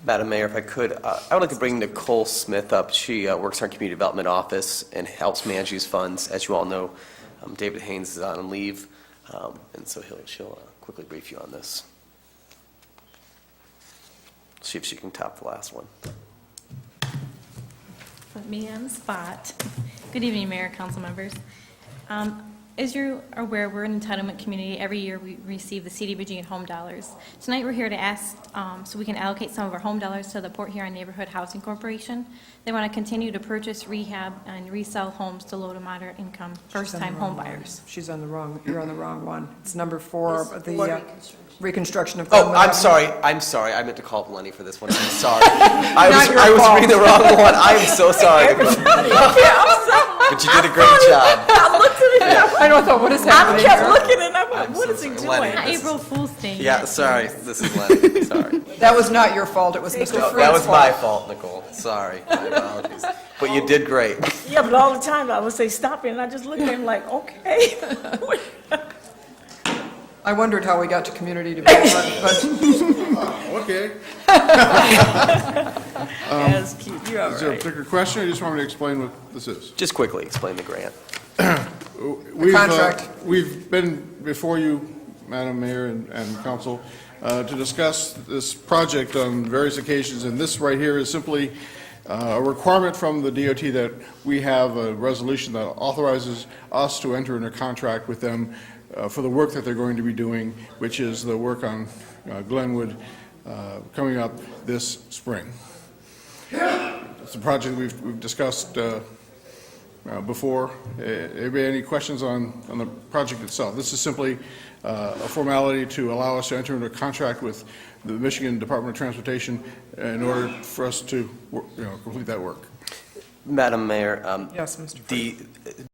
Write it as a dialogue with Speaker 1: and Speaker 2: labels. Speaker 1: Madam Mayor, if I could, uh, I would like to bring Nicole Smith up. She uh, works in our Community Development Office and helps manage these funds. As you all know, um, David Haynes is on leave, um, and so he'll- she'll uh, quickly brief you on this. See if she can top the last one.
Speaker 2: Put me on the spot. Good evening, Mayor, council members. Um, As you are aware, we're an entitlement community. Every year, we receive the CDBG and home dollars. Tonight, we're here to ask um, so we can allocate some of our home dollars to the Port Huron Neighborhood Housing Corporation. They want to continue to purchase, rehab, and resell homes to low to moderate income, first-time home buyers.
Speaker 3: She's on the wrong, you're on the wrong one. It's number four, but the
Speaker 4: What
Speaker 3: uh, reconstruction of.
Speaker 1: Oh,
Speaker 3: Glenwood
Speaker 1: I'm
Speaker 3: Avenue.
Speaker 1: sorry, I'm sorry, I meant to call Lenny for this one, I'm sorry. I was,
Speaker 3: your
Speaker 1: I was
Speaker 3: fault.
Speaker 1: reading the wrong one, I am so sorry. But you did a great job.
Speaker 4: I looked at it,
Speaker 3: I don't know, what is
Speaker 4: I
Speaker 3: happening
Speaker 4: kept
Speaker 3: here?
Speaker 4: looking and I'm like,
Speaker 1: I'm
Speaker 4: what
Speaker 1: so
Speaker 4: is he
Speaker 1: sorry.
Speaker 4: doing?
Speaker 1: Lenny.
Speaker 2: Not
Speaker 1: This is-
Speaker 2: April Fool's Day.
Speaker 1: Yeah,
Speaker 2: yet.
Speaker 1: sorry, this is Lenny, sorry.
Speaker 3: That was not your fault, it was Mr.
Speaker 1: No,
Speaker 3: Fruit's
Speaker 1: That was my
Speaker 3: fault.
Speaker 1: fault, Nicole, sorry, my apologies. But you did great.
Speaker 4: Yeah, but all the time I would say, stop it, and I just looked at him like, okay.
Speaker 5: Um,
Speaker 3: I wondered how we got to community development, but
Speaker 5: Okay.
Speaker 4: That's cute, you're all
Speaker 5: Is there a
Speaker 4: right.
Speaker 5: particular question, or you just want me to explain what this is?
Speaker 1: Just quickly explain the grant.
Speaker 5: We've, uh,
Speaker 3: contract.
Speaker 5: We've been before you, Madam Mayor and, and council, uh, to discuss this project on various occasions, and this right here is simply uh, a requirement from the DOT that we have a resolution that authorizes us to enter into contract with them uh, for the work that they're going to be doing, which is the work on uh, Glenwood uh, coming up this spring. It's a project we've, we've discussed uh, uh, before. Uh, Anybody any questions on, on the project itself? This is simply uh, a formality to allow us to enter into a contract with the Michigan Department of Transportation in order for us to, wor- you know, complete that work.
Speaker 1: Madam Mayor, um,
Speaker 3: yes, Mr. Fruit.
Speaker 1: the,